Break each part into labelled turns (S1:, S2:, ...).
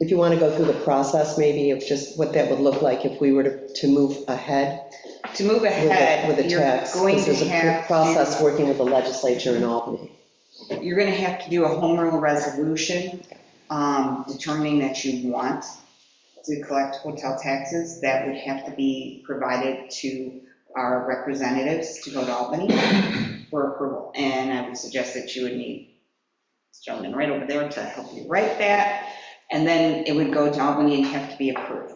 S1: if you want to go through the process, maybe of just what that would look like if we were to to move ahead
S2: To move
S1: with a-
S2: ahead,
S1: with a
S2: you're
S1: tax.
S2: going
S1: Because
S2: to
S1: there's a
S2: have
S1: process
S2: to,
S1: working with the legislature in Albany.
S2: you're going to have to do a home rule resolution um, determining that you want to collect hotel taxes. That would have to be provided to our representatives to go to Albany for approval. And I would suggest that you would need this gentleman right over there to help you write that. And then it would go to Albany and have to be approved.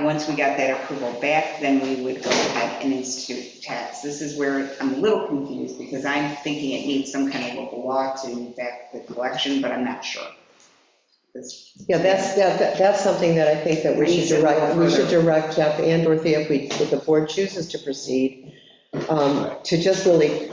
S2: Once we got that approval back, then we would go ahead and institute tax. This is where I'm a little confused, because I'm thinking it needs some kind of local law to back the collection, but I'm not sure. This-
S1: Yeah, that's, that- that- that's something that I think that we should direct, we should direct Jeff and Dorothea, if we, if the board chooses to proceed, um, to just really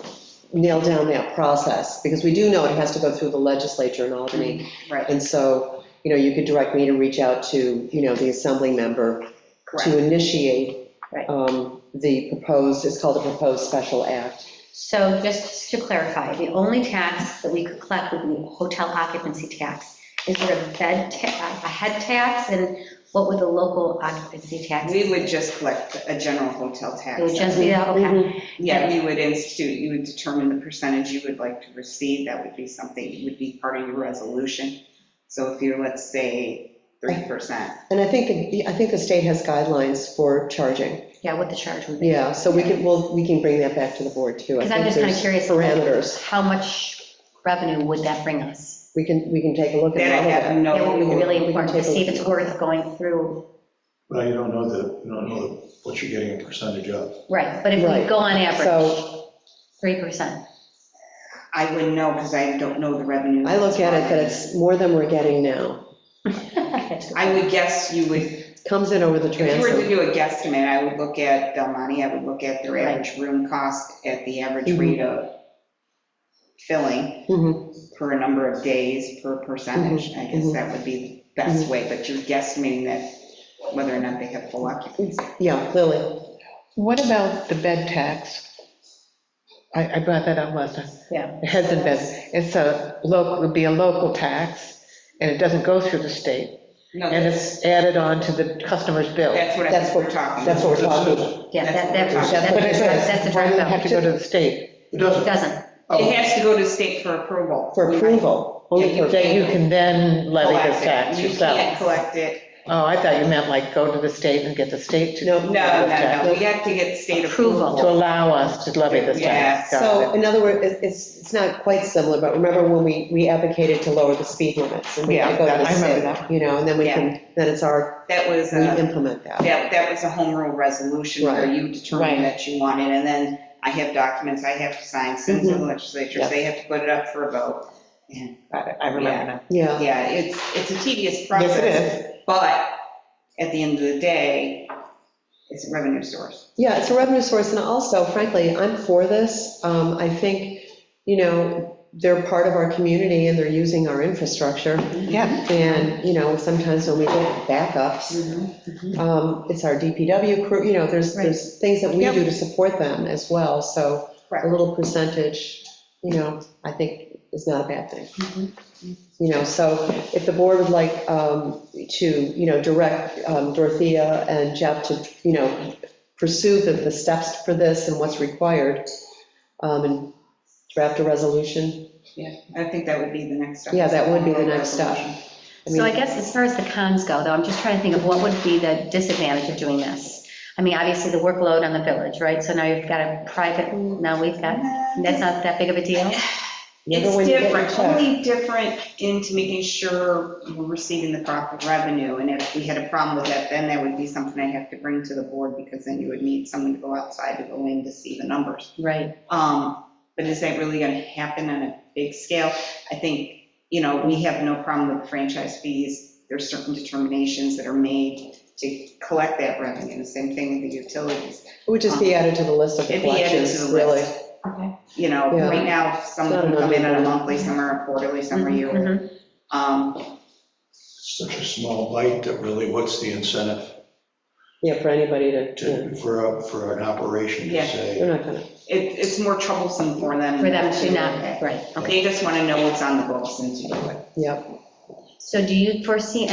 S1: nail down that process, because we do know it has to go through the legislature in Albany.
S2: Right,
S1: And so, you know, you could direct me to reach out to, you know, the assembly member to
S2: correct.
S1: initiate
S3: Right.
S1: um, the proposed, it's called a proposed special act.
S3: So just to clarify, the only tax that we could collect would be hotel occupancy tax. Is there a bed, ta- a head tax, and what would the local occupancy tax?
S2: We would just collect a general hotel tax.
S3: It would just be, that, okay.
S1: Mm-hmm.
S2: Yeah, you would institute, you would determine the percentage you would like to receive, that would be something, would be part of your resolution. So if you're, let's say, 3%,
S1: And I think, the- I think the state has guidelines for charging.
S3: Yeah, what the charge would be.
S1: Yeah, so we can, well, we can bring that back to the board too. I
S3: Because I'm
S1: think
S3: just kind of
S1: there's
S3: curious.
S1: Parameters.
S3: How much revenue would that bring us?
S1: We can, we can take a look
S2: then I
S1: at all
S2: have
S1: of that.
S3: It would be
S2: no,
S3: really
S1: we can
S3: important to
S1: take a
S3: see if it's
S1: look.
S3: worth going through.
S4: Well, you don't know the, you don't know what you're getting a percentage of.
S3: Right, but if we
S1: Right.
S3: go on average,
S1: So
S3: 3%.
S2: I wouldn't know, because I don't know the revenue.
S1: I look at it that it's more than we're getting now.
S2: I would guess you would,
S1: Comes in over the
S2: if you were to
S1: transom.
S2: do a guesstimate, I would look at Del Monte, I would look at their average room cost, at the average
S1: Mhm.
S2: rate of filling
S1: Mhm.
S2: per number of days, per percentage. I guess
S1: mhm.
S2: that would be the best
S1: Mm-hmm.
S2: way, but you're guesstimating that whether or not they have full occupancy.
S1: Yeah, Lily.
S5: What about the bed tax? I, I brought that up last time.
S3: Yeah.
S5: It hasn't been, it's a local, would be a local tax, and it doesn't go through the state,
S2: No,
S5: and it's added on to the customer's bill.
S2: That's what I
S1: That's
S2: think
S1: what-
S2: we're talking
S1: That's
S2: about.
S1: what we're talking about.
S3: Yeah, that, that-
S2: That's what
S3: that's,
S1: it
S5: But it
S3: a-
S5: does.
S3: that's a
S5: Why
S3: direct
S5: does it have
S3: bill.
S5: to go to the state?
S4: It
S3: It
S4: doesn't. oh,
S3: doesn't.
S2: It has to go to state for approval.
S1: For approval, only for,
S5: That you can then levy this
S2: Collect
S5: tax
S2: it. You can't
S5: yourself?
S2: collect it.
S5: Oh, I thought you meant like go to the state and get the state to.
S1: No,
S2: No, no, no, we have to get state approval.
S5: To allow us to levy this tax.
S2: Yeah,
S5: Got
S1: so
S5: it.
S1: in other words, it- it's, it's not quite similar, but remember when we, we advocated to lower the speed limits? And we had to go
S5: Yeah,
S1: to the
S5: I remember
S1: state,
S5: that.
S1: You know, and then we
S2: Yeah.
S1: can, then it's our,
S2: That was, uh,
S1: we
S2: a-
S1: implement that.
S2: that, that was a home rule resolution where
S1: Right.
S2: you determined
S5: Right.
S2: that you wanted, and then I have documents I have to sign, send
S1: Mm-hmm.
S2: to the legislature,
S1: Yeah.
S2: they have to put it up for a vote.
S5: I I remember that.
S1: Yeah,
S2: Yeah, it's, it's a tedious
S5: Yes,
S2: process.
S5: it is.
S2: But at the end of the day, it's a revenue source.
S1: yeah, it's a revenue source, and also frankly, I'm for this. Um, I think, you know, they're part of our community and they're using our infrastructure.
S5: Yeah.
S1: And, you know, sometimes when we get backups,
S5: Mm-hmm.
S1: um, it's our DPW crew, you know, there's, there's things that we
S5: Yep.
S1: do to support them as well. So a
S2: Correct.
S1: little percentage, you know, I think is not a bad thing.
S5: Mm-hmm.
S1: You know, so if the board would like um, to, you know, direct um, Dorothea and Jeff to, you know, pursue the, the steps for this and what's required, um, and draft a resolution.
S2: Yeah, I think that would be the next step.
S1: Yeah, that would be the next step. I
S3: So I
S1: mean,
S3: guess as far as the cons go, though, I'm just trying to think of what would be the disadvantage of doing this? I mean, obviously, the workload on the village, right? So now you've got a private, now we've got, that's not that big of a deal?
S1: remember when you get
S2: It's
S1: your
S2: different,
S1: check?
S2: only different into making sure we're receiving the proper revenue. And if we had a problem with that, then that would be something I have to bring to the board because then you would need someone to go outside to go in to see the numbers.
S3: Right.
S2: Um, But is that really going to happen on a big scale? I think, you know, we have no problem with franchise fees. There's certain determinations that are made to collect that revenue, the same thing with the utilities.
S1: It would just be added to the list of the
S2: It'd be added to
S1: collections,
S2: the
S1: really.
S2: list.
S3: Okay.
S2: You know,
S1: Yeah.
S2: right now, some of them come in on a monthly, some are quarterly, some
S1: Mm-hmm.
S2: are yearly.
S3: Mhm,
S2: Um,
S4: Such a small bite that really, what's the incentive
S1: Yeah, for anybody to, yeah,
S4: to, for, a- for an operation to
S2: Yeah.
S1: they're
S4: say?
S1: not gonna,
S2: it- It's more troublesome for them.
S3: mhm. For them to not, right.
S2: They just want to know what's on the books and to do it.
S1: yeah.
S3: So do you foresee